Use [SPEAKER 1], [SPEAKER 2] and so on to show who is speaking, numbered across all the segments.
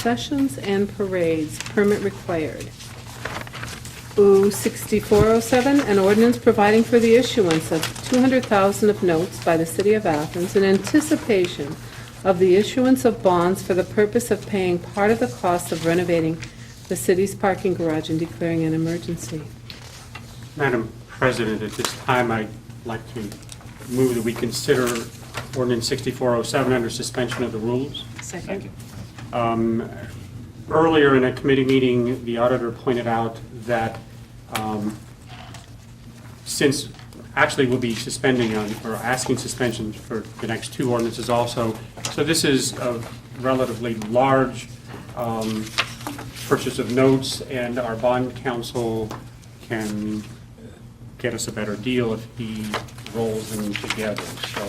[SPEAKER 1] Sessions and parades, permit required. OO 6407, an ordinance providing for the issuance of 200,000 of notes by the City of Athens in anticipation of the issuance of bonds for the purpose of paying part of the cost of renovating the city's parking garage and declaring an emergency.
[SPEAKER 2] Madam President, at this time, I'd like to move that we consider ordinance 6407 under suspension of the rules. Um,
[SPEAKER 1] Second.
[SPEAKER 2] Earlier in a committee meeting, the auditor pointed out that um, since, actually, we'll be suspending on, or asking suspension for the next two ordinances also, so this is a relatively large um, purchase of notes, and our bond counsel can get us a better deal if he rolls them together. So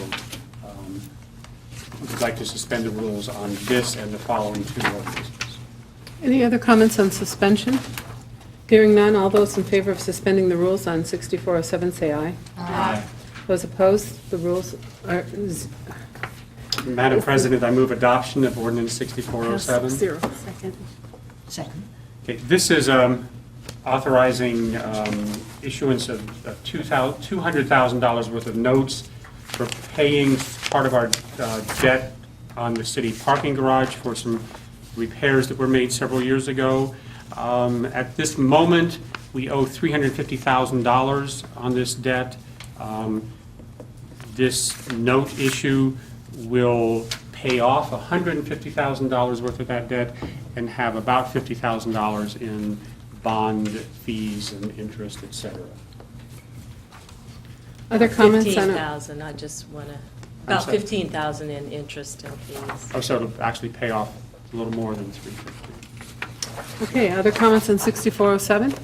[SPEAKER 2] um, we'd like to suspend the rules on this and the following two ordinances.
[SPEAKER 1] Any other comments on suspension? Hearing none, all those in favor of suspending the rules on 6407, say aye. Aye. Those opposed, the rules are z-
[SPEAKER 2] Madam President, I move adoption of ordinance 6407.
[SPEAKER 1] zero. Second.
[SPEAKER 3] Second.
[SPEAKER 2] Okay, This is um, authorizing um, issuance of of two thou- $200,000 worth of notes for paying part of our uh, debt on the city parking garage for some repairs that were made several years ago. Um, At this moment, we owe $350,000 on this debt. Um, this note issue will pay off $150,000 worth of that debt and have about $50,000 in bond fees and interest, et cetera.
[SPEAKER 1] Other comments on, it?
[SPEAKER 4] 15,000, I just want to,
[SPEAKER 2] I'm
[SPEAKER 4] about
[SPEAKER 2] sorry.
[SPEAKER 4] 15,000 in interest and fees.
[SPEAKER 2] Oh, so it'll actually pay off a little more than 350.
[SPEAKER 1] okay, other comments on 6407? Do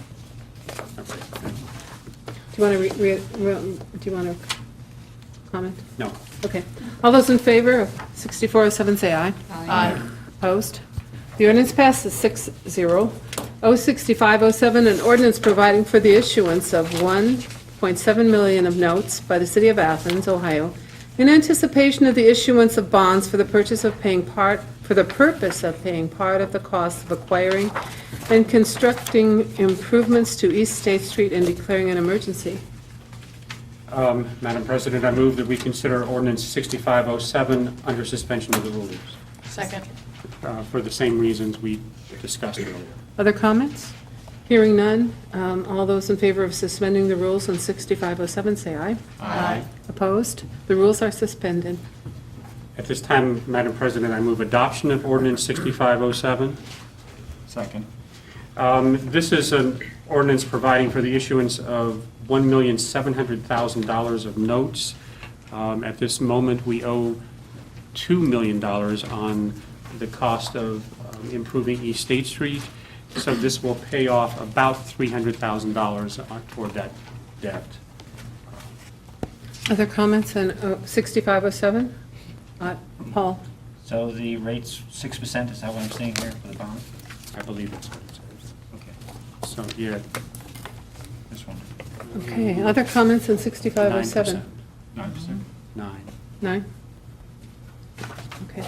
[SPEAKER 2] Okay.
[SPEAKER 1] you want to, re? re- re- do you want to comment?
[SPEAKER 2] No,
[SPEAKER 1] Okay. All those in favor of 6407, say aye. Aye. Opposed? The ordinance passes 6-0. 06507, an ordinance providing for the issuance of 1.7 million of notes by the City of Athens, Ohio, in anticipation of the issuance of bonds for the purchase of paying part, for the purpose of paying part of the cost of acquiring and constructing improvements to East State Street and declaring an emergency.
[SPEAKER 2] Um, Madam President, I move that we consider ordinance 6507 under suspension of the rules
[SPEAKER 3] Second.
[SPEAKER 2] uh, for the same reasons we discussed earlier.
[SPEAKER 1] Other comments? Hearing none. Um, All those in favor of suspending the rules on 6507, say aye.
[SPEAKER 3] Aye.
[SPEAKER 1] Opposed? The rules are suspended.
[SPEAKER 2] At this time, Madam President, I move adoption of ordinance 6507.
[SPEAKER 5] Second.
[SPEAKER 2] Um, This is an ordinance providing for the issuance of $1,700,000 of notes. Um, At this moment, we owe $2 million on the cost of um, improving East State Street, so this will pay off about $300,000 on- toward that debt.
[SPEAKER 1] Other comments on uh, 6507? Uh, Paul?
[SPEAKER 5] So the rate's six percent, is that what I'm seeing here for the bond?
[SPEAKER 2] I believe that's what it says.
[SPEAKER 5] Okay,
[SPEAKER 2] So, yeah.
[SPEAKER 5] this one.
[SPEAKER 1] Okay, other comments on
[SPEAKER 2] 9%.
[SPEAKER 1] 6507?
[SPEAKER 5] Mm-hmm. Nine percent?
[SPEAKER 2] Nine.
[SPEAKER 1] Nine? Okay.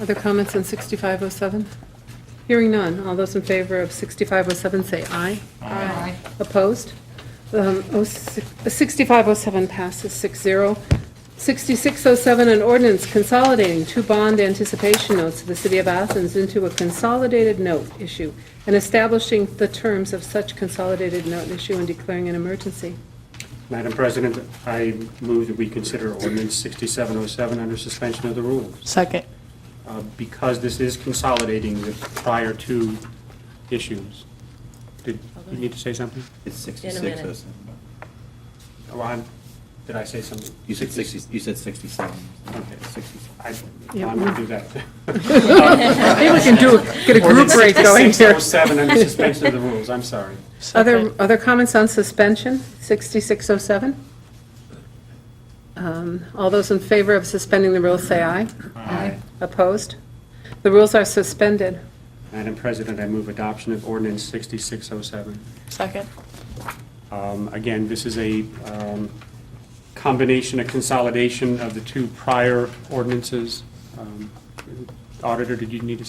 [SPEAKER 1] Other comments on 6507? Hearing none. All those in favor of 6507, say aye.
[SPEAKER 3] Aye.
[SPEAKER 1] Opposed? Um, oh, si- 6507 passes 6-0. 6607, an ordinance consolidating two bond anticipation notes of the City of Athens into a consolidated note issue and establishing the terms of such consolidated note issue and declaring an emergency.
[SPEAKER 2] Madam President, I move that we consider ordinance 6707 under suspension of the rules.
[SPEAKER 6] Second.
[SPEAKER 2] uh, because this is consolidating the prior two issues. Did you need to say something?
[SPEAKER 7] It's
[SPEAKER 4] In a
[SPEAKER 7] 66
[SPEAKER 4] minute.
[SPEAKER 7] or something.
[SPEAKER 2] Oh, I'm, did I say something?
[SPEAKER 7] You said 60, you said 67.
[SPEAKER 2] Okay.
[SPEAKER 7] 67.
[SPEAKER 2] I-
[SPEAKER 1] Yeah.
[SPEAKER 2] I'm going to do that.
[SPEAKER 1] Maybe we can do, get a group rate going here.
[SPEAKER 2] 6607 under suspension of the rules, I'm sorry.
[SPEAKER 1] Other, other comments on suspension, 6607? Um, All those in favor of suspending the rules, say aye.
[SPEAKER 5] Aye.
[SPEAKER 1] Opposed? The rules are suspended.
[SPEAKER 2] Madam President, I move adoption of ordinance 6607.
[SPEAKER 6] Second.
[SPEAKER 2] Um, Again, this is a um, combination, a consolidation of the two prior ordinances. Um, Auditor, did you need to